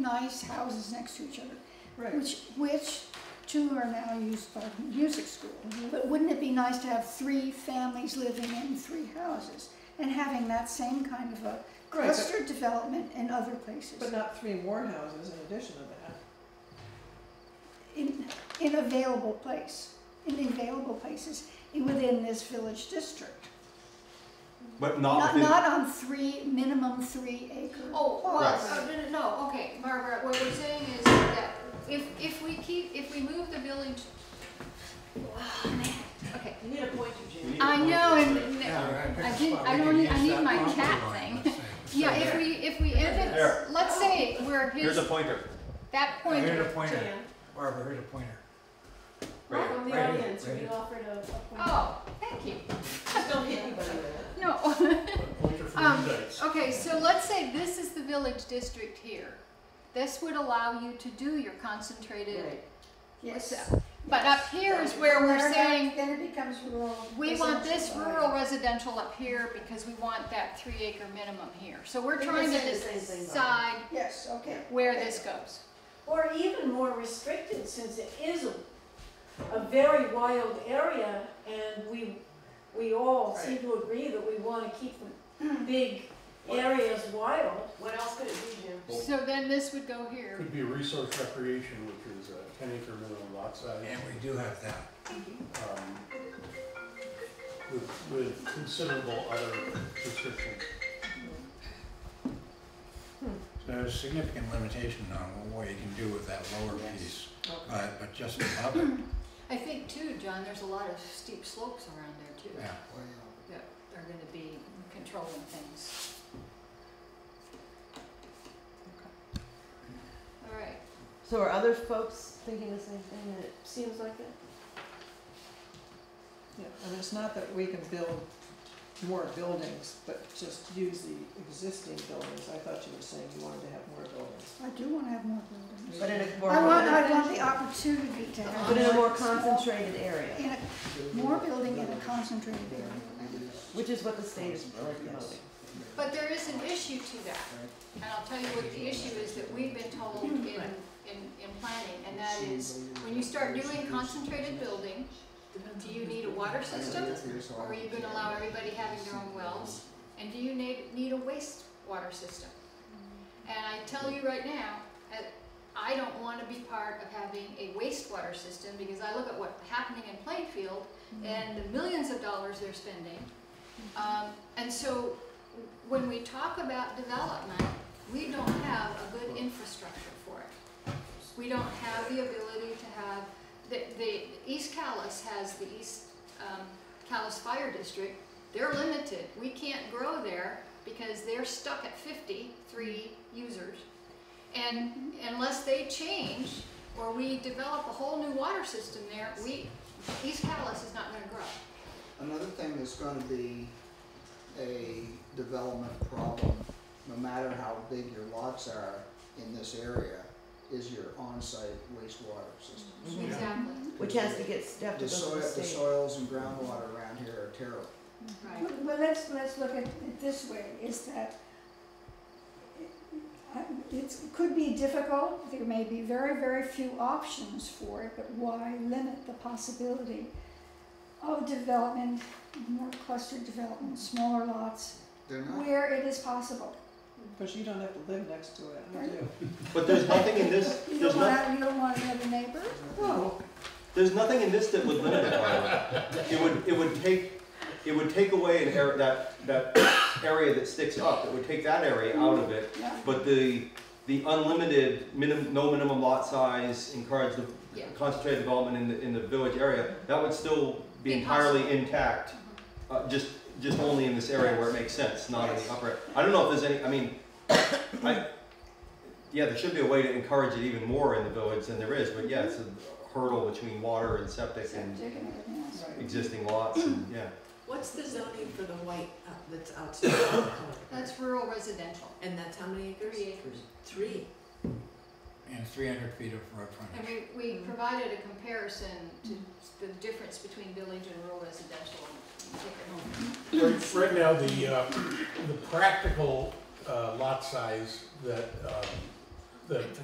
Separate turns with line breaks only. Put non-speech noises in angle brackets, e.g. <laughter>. nice houses next to each other,
Right.
which, which two are now used by the music school. But wouldn't it be nice to have three families living in three houses and having that same kind of a
Right, but-
cluster development in other places?
But not three more houses in addition to that.
in, in available place, in available places in- within this village district.
But
Not,
not within,
not on three, minimum three acre
Oh, well,
Right.
uh, no, no, no, okay, Margaret, what we're saying is that if, if we keep, if we move the building to. Oh, man, okay.
You need a point,
We
Eugene.
need a
I
point
know,
there.
and, no, I didn't, I don't, need- I need my cat thing. Yeah, if we, if we, end
There.
it, let's say we're
Here's a
his,
pointer.
that
Here's
pointer.
a pointer,
Jan,
Barbara, here's a pointer.
Right
from
Right
the
here,
audience,
right
we
here.
offered a, a point.
Oh, thank you,
Just <laughs> don't hit anybody with it.
no. <laughs>
Pointer for
Um,
the dice.
Okay, so let's say this is the village district here. This would allow you to do your concentrated
Right.
Yes.
But up here is where
Then
we're
it-
saying,
Then it becomes rural.
we want this
residential
rural
area.
residential up here because we want that three acre minimum here. So we're
But you're
trying to
saying the same thing, though.
decide
Yes, okay.
where this goes.
Or even more restricted, since it is a, a very wild area, and we, we all seem to agree that we wanna keep
<clears throat>
the big areas wild.
What else could it be, Jim?
Well-
So then this would go here.
Could be resource recreation, which is a ten acre minimum lot size.
And we do have that.
um, With, with considerable other restrictions.
There's significant limitation on what you can do with that lower
Yes.
piece,
Okay.
but, but just above it,
I think too, John, there's a lot of steep slopes around there too.
yeah.
That are gonna be controlling things. All right,
So are other folks thinking the same thing, that it seems like that? Yeah, I mean, it's not that we can build more buildings, but just use the existing buildings. I thought you were saying you wanted to have more buildings.
I do want to have more buildings.
But in a more.
I want, I want the opportunity to have.
But in a more concentrated area,
In a, more building in a concentrated area.
which is what the state is promoting.
but there is an issue to that. And I'll tell you what the issue is that we've been told in, in, in planning, and that is, when you start doing concentrated building, do you need a water system? Or are you gonna allow everybody having their own wells? And do you need, need a wastewater system? And I tell you right now, I- I don't wanna be part of having a wastewater system, because I look at what's happening in Plainfield and the millions of dollars they're spending. Um, and so, when we talk about development, we don't have a good infrastructure for it. We don't have the ability to have, the, the, East Callis has the East, um, Callis Fire District. They're limited. We can't grow there because they're stuck at fifty-three users. And unless they change or we develop a whole new water system there, we, East Callis is not gonna grow.
Another thing that's gonna be a development problem, no matter how big your lots are in this area, is your on-site wastewater system.
Exactly,
Which has to get stepped
The soil,
above the
the
state.
soils and groundwater around here are terrible.
right.
Well, well, let's, let's look at it this way, is that it could be difficult, there may be very, very few options for it, but why limit the possibility of development, more clustered development, smaller lots,
They're not,
where it is possible?
But you don't have to live next to it, I do.
But there's nothing in this,
<laughs> You
there's
don't
not,
want, you don't want another neighbor?
Oh,
there's nothing in this that would limit it, by the way. It would, it would take, it would take away an area, that, that area that sticks up, it would take that area out of it.
Yeah.
But the, the unlimited, minim, no minimum lot size, encourage the
Yeah.
concentrated development in the, in the village area, that would still be entirely intact. Uh, just, just only in this area where it makes sense, not in the upper, I don't know if there's any, I mean, I, yeah, there should be a way to encourage it even more in the village than there is, but yeah, it's a hurdle between water and septic and
Septic and everything else.
existing lots, and, yeah.
What's the zoning for the white uh, that's outside? of the color?
That's rural residential,
And that's how many acres?
three acres.
Three.
And it's three hundred feet of road
And
frontage.
we, we provided a comparison to the difference between village and rural residential.
Right, right now, the, uh, the practical, uh, lot size that, um, the